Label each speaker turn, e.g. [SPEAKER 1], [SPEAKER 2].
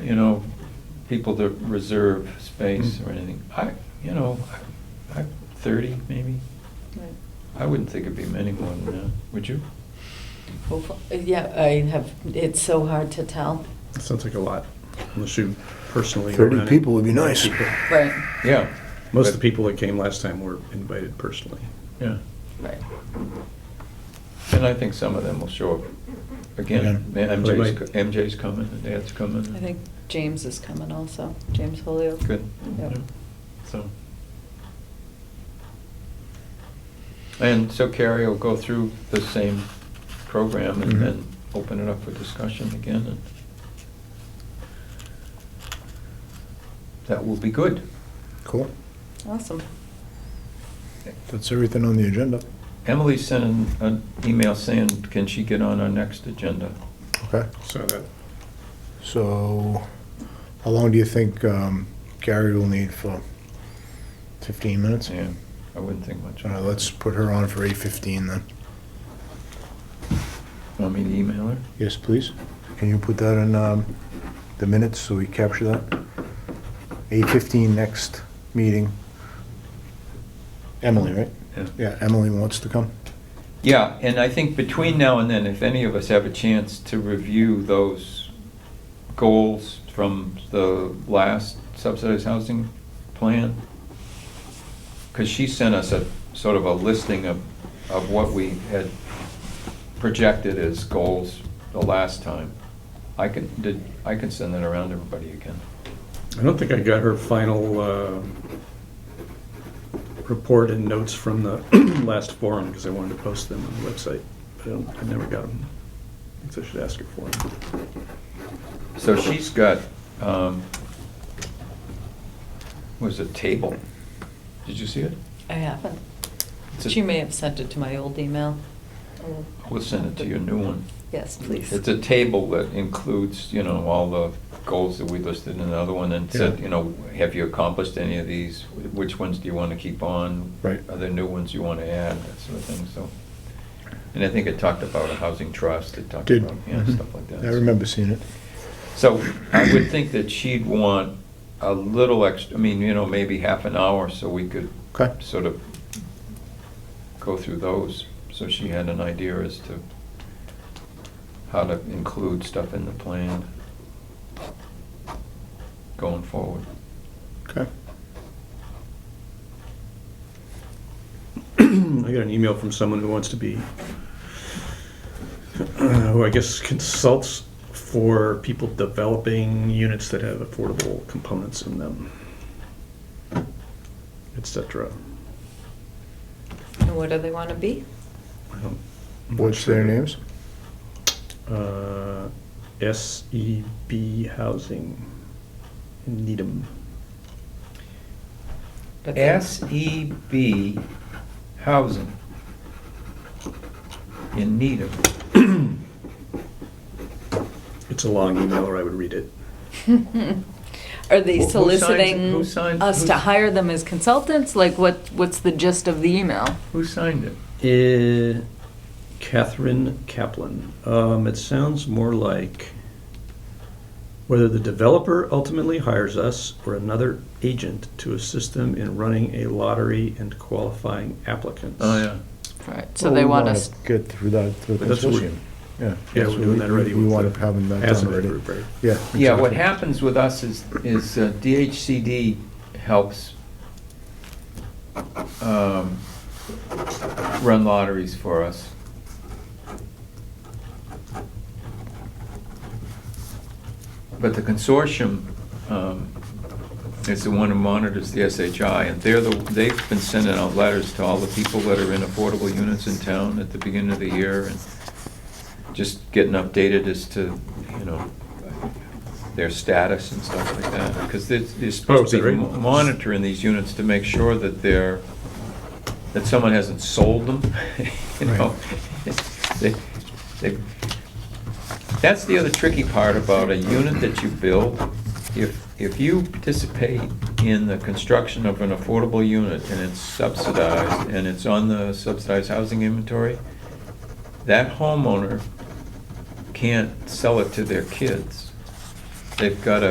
[SPEAKER 1] you know, people that reserve space
[SPEAKER 2] Mm-hmm.
[SPEAKER 1] or anything. I, you know, I, I- thirty maybe.
[SPEAKER 3] Right.
[SPEAKER 1] I wouldn't think it'd be many more than that, would you?
[SPEAKER 3] Well, f- Yeah, I have, it's so hard to tell.
[SPEAKER 2] Sounds like a lot, unless you personally. go
[SPEAKER 4] 30
[SPEAKER 2] around it.
[SPEAKER 4] people would be nice.
[SPEAKER 2] People.
[SPEAKER 3] Right,
[SPEAKER 1] Yeah.
[SPEAKER 2] Most of the
[SPEAKER 1] But-
[SPEAKER 2] people that came last time were invited personally.
[SPEAKER 1] Yeah,
[SPEAKER 3] right.
[SPEAKER 1] and I think some of them will show up again.
[SPEAKER 5] Yeah.
[SPEAKER 1] MJ's,
[SPEAKER 2] Right.
[SPEAKER 1] MJ's coming, and Dad's coming.
[SPEAKER 3] I think James is coming also, James Holyoke.
[SPEAKER 1] Good.
[SPEAKER 3] Yep.
[SPEAKER 1] Yeah. So. And so Carrie will go through the same program and
[SPEAKER 5] Mhm.
[SPEAKER 4] Mm-hmm.
[SPEAKER 1] then open it up for discussion again and that will be good.
[SPEAKER 4] Cool.
[SPEAKER 3] Awesome.
[SPEAKER 4] That's everything on the agenda.
[SPEAKER 1] Emily sent an, an email saying, can she get on our next agenda?
[SPEAKER 4] Okay.
[SPEAKER 2] So that,
[SPEAKER 4] So, how long do you think um, Gary will need for? 15 minutes?
[SPEAKER 1] Yeah, I wouldn't think much.
[SPEAKER 4] All
[SPEAKER 1] of
[SPEAKER 4] right,
[SPEAKER 1] it.
[SPEAKER 4] let's put her on for 8:15 then.
[SPEAKER 1] Want me to email her?
[SPEAKER 4] Yes, please. Can you put that in um, the minutes so we capture that? 8:15 next meeting. Emily, right?
[SPEAKER 1] Yeah.
[SPEAKER 4] Yeah, Emily wants to come?
[SPEAKER 1] Yeah, and I think between now and then, if any of us have a chance to review those goals from the last subsidized housing plan, because she sent us a, sort of a listing of, of what we had projected as goals the last time. I can, did, I can send that around to everybody again.
[SPEAKER 2] I don't think I got her final uh, report and notes from the last forum, because I wanted to post them on the website, but I don't, I never got them. I guess I should ask her for them.
[SPEAKER 1] So she's got, um, was a table. Did you see it?
[SPEAKER 3] I haven't.
[SPEAKER 1] It's a-
[SPEAKER 3] She may have sent it to my old email. I'll-
[SPEAKER 1] We'll send it to your new one.
[SPEAKER 3] Yes, please.
[SPEAKER 1] It's a table that includes, you know, all the goals that we listed in another one and said,
[SPEAKER 4] Yeah.
[SPEAKER 1] you know, have you accomplished any of these? Which ones do you want to keep on?
[SPEAKER 4] Right.
[SPEAKER 1] Are there new ones you want to add, that sort of thing, so. And I think it talked about a housing trust, it talked
[SPEAKER 4] Did. Mm-hmm.
[SPEAKER 1] about, yeah, stuff like that.
[SPEAKER 4] I remember seeing it.
[SPEAKER 1] So I would think that she'd want a little extra, I mean, you know, maybe half an hour so we could
[SPEAKER 4] Okay.
[SPEAKER 1] sort of go through those, so she had an idea as to how to include stuff in the plan going forward.
[SPEAKER 4] Okay.
[SPEAKER 2] I got an email from someone who wants to be, uh, who I guess consults for people developing units that have affordable components in them, et cetera.
[SPEAKER 3] And what do they want to be?
[SPEAKER 2] I don't- I'm not
[SPEAKER 4] What's
[SPEAKER 2] sure.
[SPEAKER 4] their names?
[SPEAKER 2] Uh, SEB Housing in Needham.
[SPEAKER 3] But they-
[SPEAKER 1] SEB E Housing in need of
[SPEAKER 2] It's a long email, or I would read it.
[SPEAKER 3] Are
[SPEAKER 1] Who-
[SPEAKER 3] they
[SPEAKER 1] who signs-
[SPEAKER 3] soliciting
[SPEAKER 1] who signs-
[SPEAKER 3] us to
[SPEAKER 1] who's-
[SPEAKER 3] hire them as consultants? Like, what, what's the gist of the email?
[SPEAKER 1] Who signed it?
[SPEAKER 2] Eh, Catherine Kaplan. Um, it sounds more like whether the developer ultimately hires us or another agent to assist them in running a lottery and qualifying applicants.
[SPEAKER 4] Oh,
[SPEAKER 3] Right, so
[SPEAKER 4] Well,
[SPEAKER 3] they
[SPEAKER 4] Oh, we
[SPEAKER 3] want
[SPEAKER 4] wanna
[SPEAKER 3] us,
[SPEAKER 4] Get through that, through the
[SPEAKER 2] But that's what we-
[SPEAKER 4] consortium. Yeah.
[SPEAKER 2] Yeah,
[SPEAKER 4] that's
[SPEAKER 2] we're
[SPEAKER 4] what
[SPEAKER 2] doing that
[SPEAKER 4] we-
[SPEAKER 2] already.
[SPEAKER 4] We
[SPEAKER 2] with
[SPEAKER 4] want
[SPEAKER 2] the
[SPEAKER 4] to have that
[SPEAKER 2] ASME
[SPEAKER 4] done already.
[SPEAKER 2] group, right?
[SPEAKER 4] Yeah.
[SPEAKER 1] Yeah, what
[SPEAKER 4] exactly.
[SPEAKER 1] happens with us is, is uh, DHCD helps um, run lotteries for us. But the consortium um, is the one who monitors the SHI, and they're the, they've been sending out letters to all the people that are in affordable units in town at the beginning of the year, and just getting updated as to, you know, their status and stuff like that, because they're, they're
[SPEAKER 2] Oh,
[SPEAKER 1] supposed
[SPEAKER 2] is
[SPEAKER 1] to
[SPEAKER 2] that
[SPEAKER 1] be
[SPEAKER 2] right?
[SPEAKER 1] mo- monitoring these units to make sure that they're, that someone hasn't sold them, you know? They- they- That's the other tricky part about a unit that you build. If, if you participate in the construction of an affordable unit and it's subsidized and it's on the subsidized housing inventory, that homeowner can't sell it to their kids. They've got to